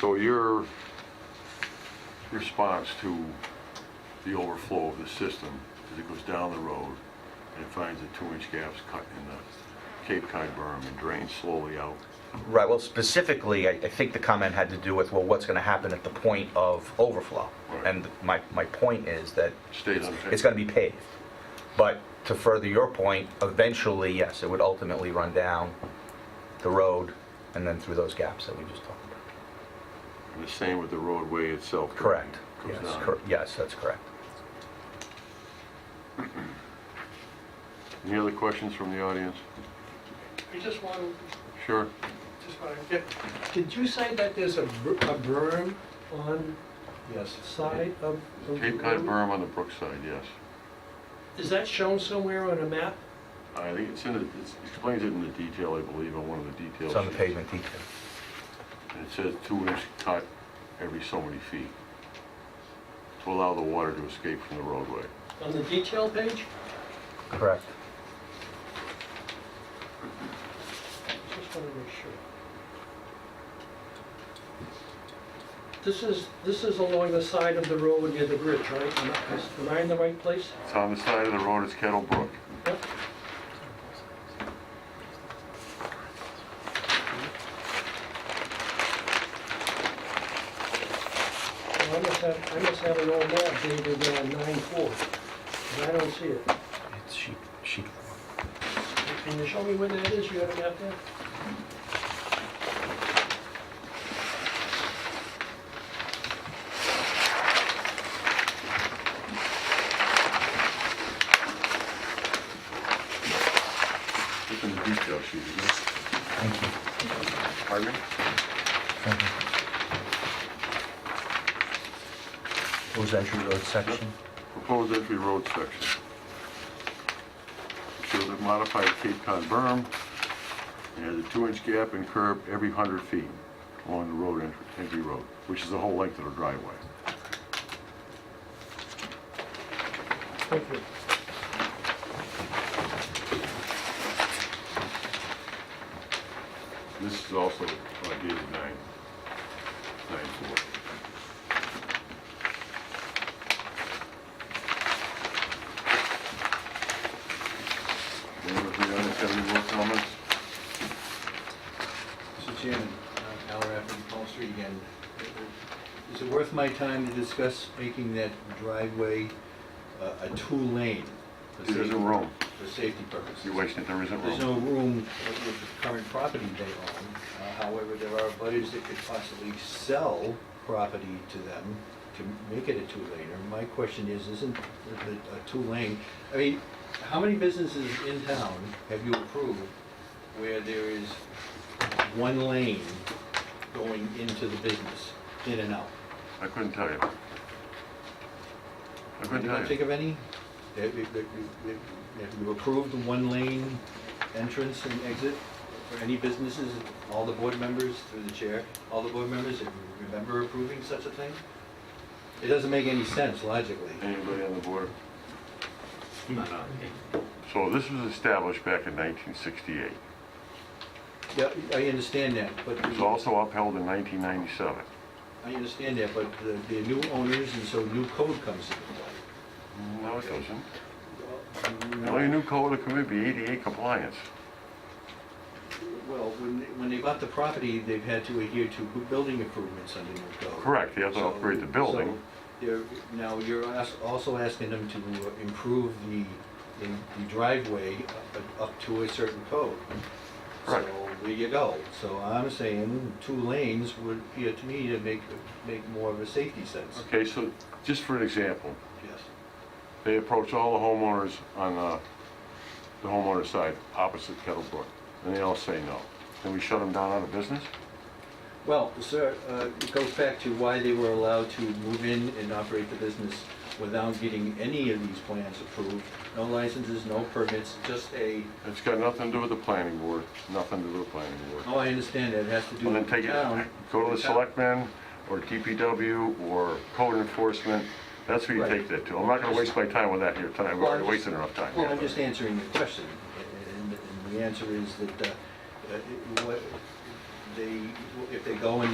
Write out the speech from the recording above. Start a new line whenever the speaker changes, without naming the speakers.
So your response to the overflow of the system is it goes down the road and it finds the two-inch gaps cut in the Cape Cod berm and drains slowly out.
Right, well, specifically, I, I think the comment had to do with, well, what's gonna happen at the point of overflow?
Right.
And my, my point is that
Stays on
it's gonna be paved. But to further your point, eventually, yes, it would ultimately run down the road and then through those gaps that we just talked about.
And the same with the roadway itself.
Correct.
Goes
Yes,
down.
cor- yes, that's correct.
Any other questions from the audience?
I just want,
Sure.
just want to get, did you say that there's a br- a berm on
Yes.
side of? the
Cape Cod
road?
berm on the Brookside, yes.
Is that shown somewhere on a map?
I think it's in, the- it explains it in the detail, I believe, on one of the details.
It's on the pavement detail.
And it says two-inch cut every so many feet to allow the water to escape from the roadway.
On the detail page?
Correct.
Just want to make sure. This is, this is along the side of the road near the bridge, right? Am I- is- Am I in the right place?
It's on the side of the road, it's Kettle Brook.
Yep. Well, I must have, I must have an old map dated nine four, but I don't see it.
It's sheet, sheet four.
Can you show me where that is? You have a map there?
It's in the detail sheet, isn't it?
Thank you.
Pardon me?
Thank you. What was entry road section?
Proposed entry road section. Shows a modified Cape Cod berm, and has a two-inch gap and curb every hundred feet along the road entry, entry road, which is the whole length of the driveway.
Thank you.
This is also uh, dated nine, nine four. Anyone from the audience have any more comments?
Mr. Chairman, uh, Al Raffin, Paul Street again. Is it worth my time to discuss making that driveway uh, a two-lane? for
There
safety-
isn't room.
For safety purposes.
You're wasting, it. there isn't
There's
room.
no room with with the current property they own. Uh, However, there are butters that could possibly sell property to them to make it a two-laner. My question is, isn't the- the- a two-lane, I mean, how many businesses in town have you approved where there is one lane going into the business, in and out?
I couldn't tell you. I
Can
couldn't
you
tell
think
you.
of any? Have you- that you- that you- that you approved the one-lane entrance and exit for any businesses, all the board members, through the chair, all the board members, if you remember approving such a thing? It doesn't make any sense logically.
Anybody on the board?
No, no.
So this was established back in nineteen sixty-eight.
Yeah, I understand that, but,
It was also upheld in nineteen ninety-seven.
I understand that, but the- the new owners, and so new code comes into play.
No, it doesn't. The
No.
only new code that could be ADA E compliance.
Well, when, they- when they bought the property, they've had to adhere to building improvements under new code.
Correct, they have to
So-
upgrade the building.
so you're- Now, you're as- also asking them to improve the, the driveway up- up to a certain code.
Correct.
So there you go. So I'm saying two lanes would appear to me to make, make more of a safety sense.
Okay, so just for an example,
Yes.
they approach all the homeowners on uh, the homeowner side, opposite Kettle Brook, and they all say no. Then we shut them down out of business?
Well, sir, uh, it goes back to why they were allowed to move in and operate the business without getting any of these plans approved. No licenses, no permits, just a,
It's got nothing to do with the planning board, nothing to do with the planning board.
oh, I understand that, it has to do
Well, then
with the
take it,
town.
go to the
town.
selectmen, or DPW, or code enforcement, that's who you
Right.
take that to. I'm not gonna waste my time with that here tonight, we're
Well,
already
I'm just-
wasting enough time.
Well,
here.
I'm just answering your question, and and the answer is that uh, uh, it- what- they, if they go and